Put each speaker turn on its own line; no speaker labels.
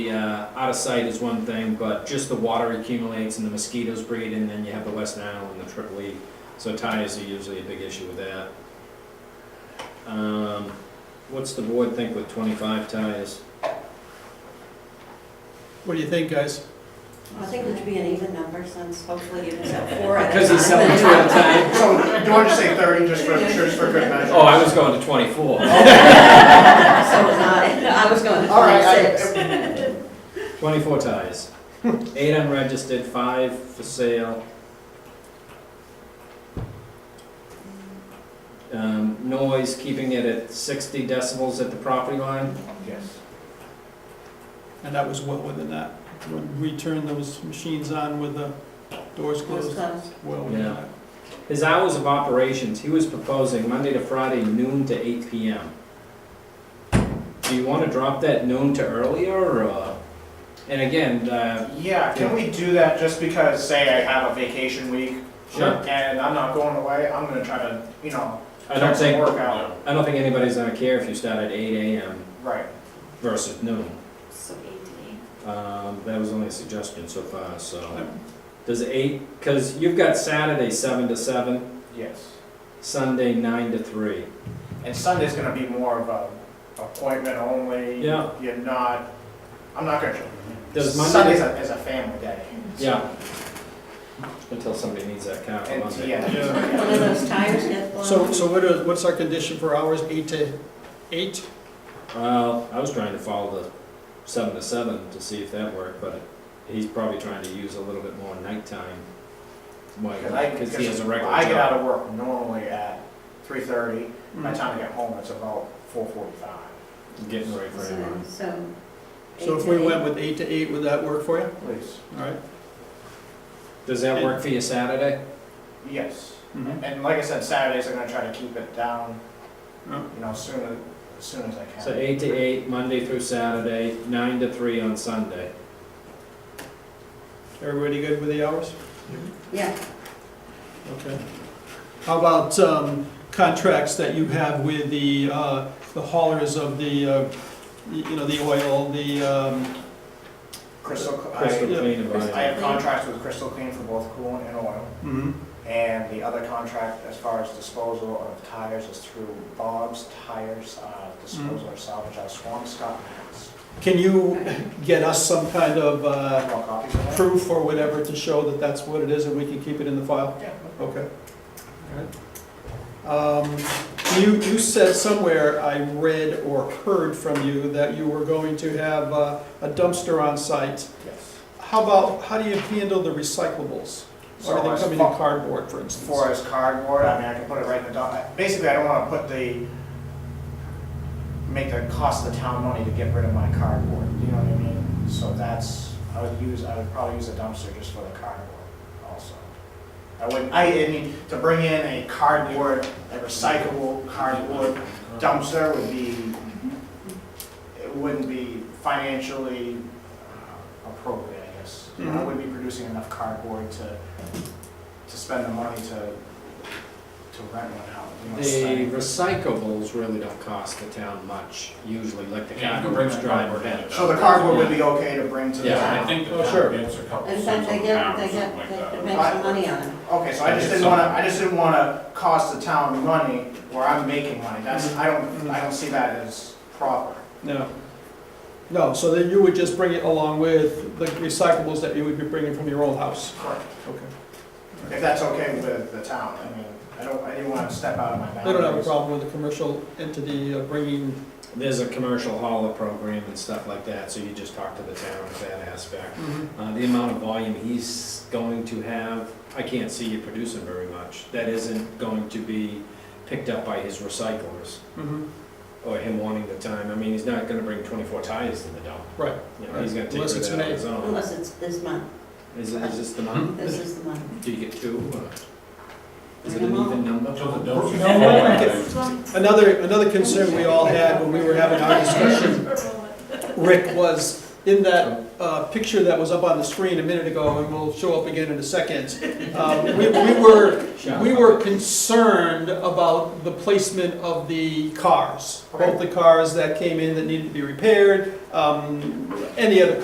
The, uh, out of sight is one thing, but just the water accumulates and the mosquitoes breed, and then you have the Western Isle and the Triple E. So tires are usually a big issue with that. Um, what's the board think with twenty-five tires?
What do you think, guys?
I think it should be an even number since hopefully it is at four. at a
Because he's
time.
selling two at a time.
So, do you want to say thirty, just for, just for good measure?
Oh, I was going to twenty-four.
So was I. I was going to
All right, I-
twenty-six.
Twenty-four tires. Eight unregistered, five for sale. Um, noise, keeping it at sixty decibels at the property line.
Yes.
And that was well within that. When we turned those machines on with the doors
Was
closed,
close.
well within
Yeah.
that.
His hours of operations, he was proposing Monday to Friday noon to eight PM. Do you wanna drop that noon to earlier, or, uh, and again, uh,
Yeah, can we do that just because, say I have a vacation week?
Sure.
And I'm not going away, I'm gonna try to, you know,
I don't
check some
think,
work out.
I don't think anybody's gonna care if you start at eight AM
Right,
versus noon.
So eight
Um, that was only a suggestion so far, so.
Yep.
Does eight, cause you've got Saturday seven to seven,
yes.
Sunday nine to three.
And Sunday's gonna be more of a appointment only.
Yeah.
You're not, I'm not gonna,
Does
Sunday's
Monday,
a, is a family day.
yeah. Until somebody needs that car for
And,
Oh, Monday.
yeah.
to eight. One of those tires get blown.
So, so what are, what's our condition for hours, eight to eight?
Well, I was trying to follow the seven to seven to see if that worked, but he's probably trying to use a little bit more nighttime. Why,
Because I,
cause he has a regular
I get out
job.
of work normally at three thirty, by the time I get home, it's about four forty-five,
Getting ready for
So-
everyone.
So.
So
eight
if
to
we
eight.
went with eight to eight, would that work for you?
please.
All right.
Does that work for you Saturday?
Yes.
Mhm.
And like I said, Saturdays I'm gonna try to keep it down,
Yeah.
you know, soon, as soon as I can.
Oh. So eight to eight, Monday through Saturday, nine to three on Sunday.
Everybody good with the hours?
Yeah,
Okay. How about um, contracts that you have with the, uh, the haulers of the, uh, y- you know, the oil, the, um,
Crystal,
Crystal
I,
yeah.
clean of
I
iron.
have contracts with Crystal Clean for both coolant and oil.
mhm,
And the other contract as far as disposal of tires is through Bob's Tires, uh, disposal
Mm.
or salvage out of Swampscott.
can you get us some kind of uh,
Want copies of that?
proof or whatever to show that that's what it is and we can keep it in the file?
Yeah.
Okay. All right. Um, You, you said somewhere, I read or heard from you, that you were going to have uh, a dumpster on site.
Yes.
How about, how do you handle the recyclables?
So uh,
Are
as
they coming
far-
in cardboard, for
As far
instance?
as cardboard, I mean, I can put it right in the dump, basically, I don't wanna put the, make the cost of the town money to get rid of my cardboard, you know what I mean? So that's, I would use, I would probably use a dumpster just for the cardboard also. I wouldn't, I, I mean, to bring in a cardboard, a recyclable cardboard dumpster would be, it wouldn't be financially uh, appropriate, I guess. You know, I
Mhm.
wouldn't be producing enough cardboard to, to spend the money to, to rent one out. you know,
The
spend-
recyclables really don't cost the town much, usually, like the
Yeah, you can
cardboard's
bring
driver
cardboard in.
bins.
So the cardboard would be okay to bring to the
Yeah,
I
town?
think the
Oh,
town
sure.
gets a couple
in
cents
fact,
on
they
the
get,
pound
they
or
get,
something like
they
that.
make some money on it.
Okay, so I just didn't wanna, I just didn't wanna cost the town money where I'm making money. That's, I don't, I don't see that as proper.
No. No, so then you would just bring it along with the recyclables that you would be bringing from your old house?
Correct.
Okay.
If that's okay with the town, I mean, I don't, I didn't wanna step out of my
I
boundaries.
don't have a problem with a commercial entity uh, bringing
There's a commercial hauler program and stuff like that, so you just talk to the town of that aspect.
Mm-hmm.
Uh, the amount of volume he's going to have, I can't see you producing very much. That isn't going to be picked up by his recyclers
Mhm.
or him wanting the time. I mean, he's not gonna bring twenty-four tires to the dump.
Right.
You know, he's gonna take
Unless
rid of
it's
that on his own.
Unless it's this month,
Is, it- is this the month?
this is the month.
Do you get two or? Is it an even number?
Until the dumpster.
No, Another, another concern we all had when we were having our discussion, Rick, was in that uh, picture that was up on the screen a minute ago, and will show up again in a second, um, we we were, we were concerned about the placement of the cars. Both the cars that came in that needed to be repaired, um, any other